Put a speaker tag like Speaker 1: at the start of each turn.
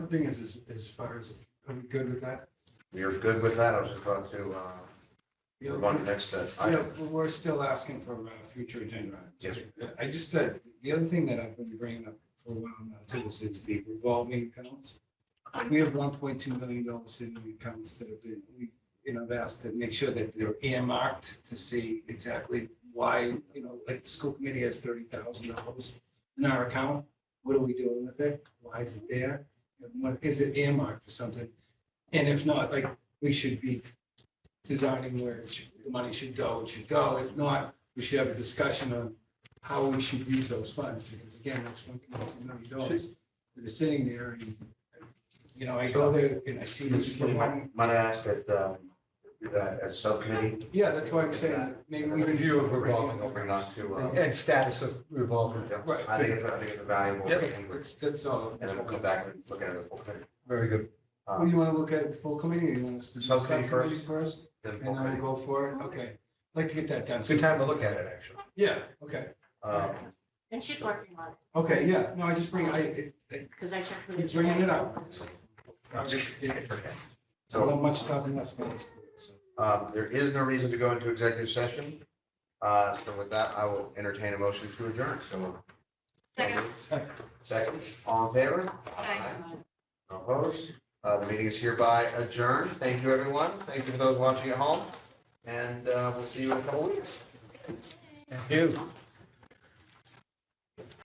Speaker 1: thing is, is, as far as, are we good with that?
Speaker 2: You're good with that? I was just about to, uh,
Speaker 1: Yeah,
Speaker 2: move on to next uh,
Speaker 1: Yeah,
Speaker 2: item.
Speaker 1: we're- we're still asking for a future agenda. item.
Speaker 2: Yes.
Speaker 1: I just, uh, the other thing that I've been bringing up for a while now too is- is the revolving accounts. We have one point two million dollars in the accounts that have been, we, you know, have asked to make sure that they're earmarked to see exactly why, you know, like the school committee has thirty thousand dollars in our account. What are we doing with it? Why is it there? And what, is it earmarked for something? And if not, like, we should be designing where it should- the money should go, it should go. If not, we should have a discussion on how we should use those funds, because again, that's one point two million dollars. They're sitting there and, you know, I go there and I see this for one,
Speaker 2: Might I ask that, um, that as subcommittee?
Speaker 1: yeah, that's why I'm saying, maybe we can.
Speaker 2: Review of revolving, open not to,
Speaker 3: And
Speaker 2: uh,
Speaker 3: and status of revolving,
Speaker 2: yeah.
Speaker 1: Right.
Speaker 2: I think it's, I think it's a valuable.
Speaker 3: Yep.
Speaker 2: thing, but-
Speaker 1: That's, that's all.
Speaker 2: And then we'll come back and look at it as a full
Speaker 1: Oh,
Speaker 2: committee.
Speaker 3: very good.
Speaker 1: Well,
Speaker 2: Um,
Speaker 1: you wanna look at full committee, or you want us to do
Speaker 2: Subcommittee first.
Speaker 1: subcommittee first,
Speaker 2: then
Speaker 1: and uh,
Speaker 2: full
Speaker 1: then
Speaker 2: committee.
Speaker 1: we'll go for it, okay. I'd Like to get that done.
Speaker 3: It's a good time to look at it, actually.
Speaker 1: Yeah, okay,
Speaker 2: Um,
Speaker 4: And she's working on it,
Speaker 1: okay, yeah, no, I just bring, I, it- it-
Speaker 4: because I checked with her.
Speaker 1: Keep bringing it up.
Speaker 4: today.
Speaker 2: Um,
Speaker 1: I just- it- I
Speaker 2: So,
Speaker 1: don't have much time left, that's, so.
Speaker 2: um, there is no reason to go into executive session. Uh, so with that, I will entertain a motion to adjourn. So
Speaker 4: Seconds.
Speaker 2: second, all in favor?
Speaker 4: Aye.
Speaker 2: Opposed? Uh, the meeting is hereby adjourned. Thank you, everyone. Thank you for those watching at home. And, uh, we'll see you in a couple weeks.
Speaker 3: Thank you.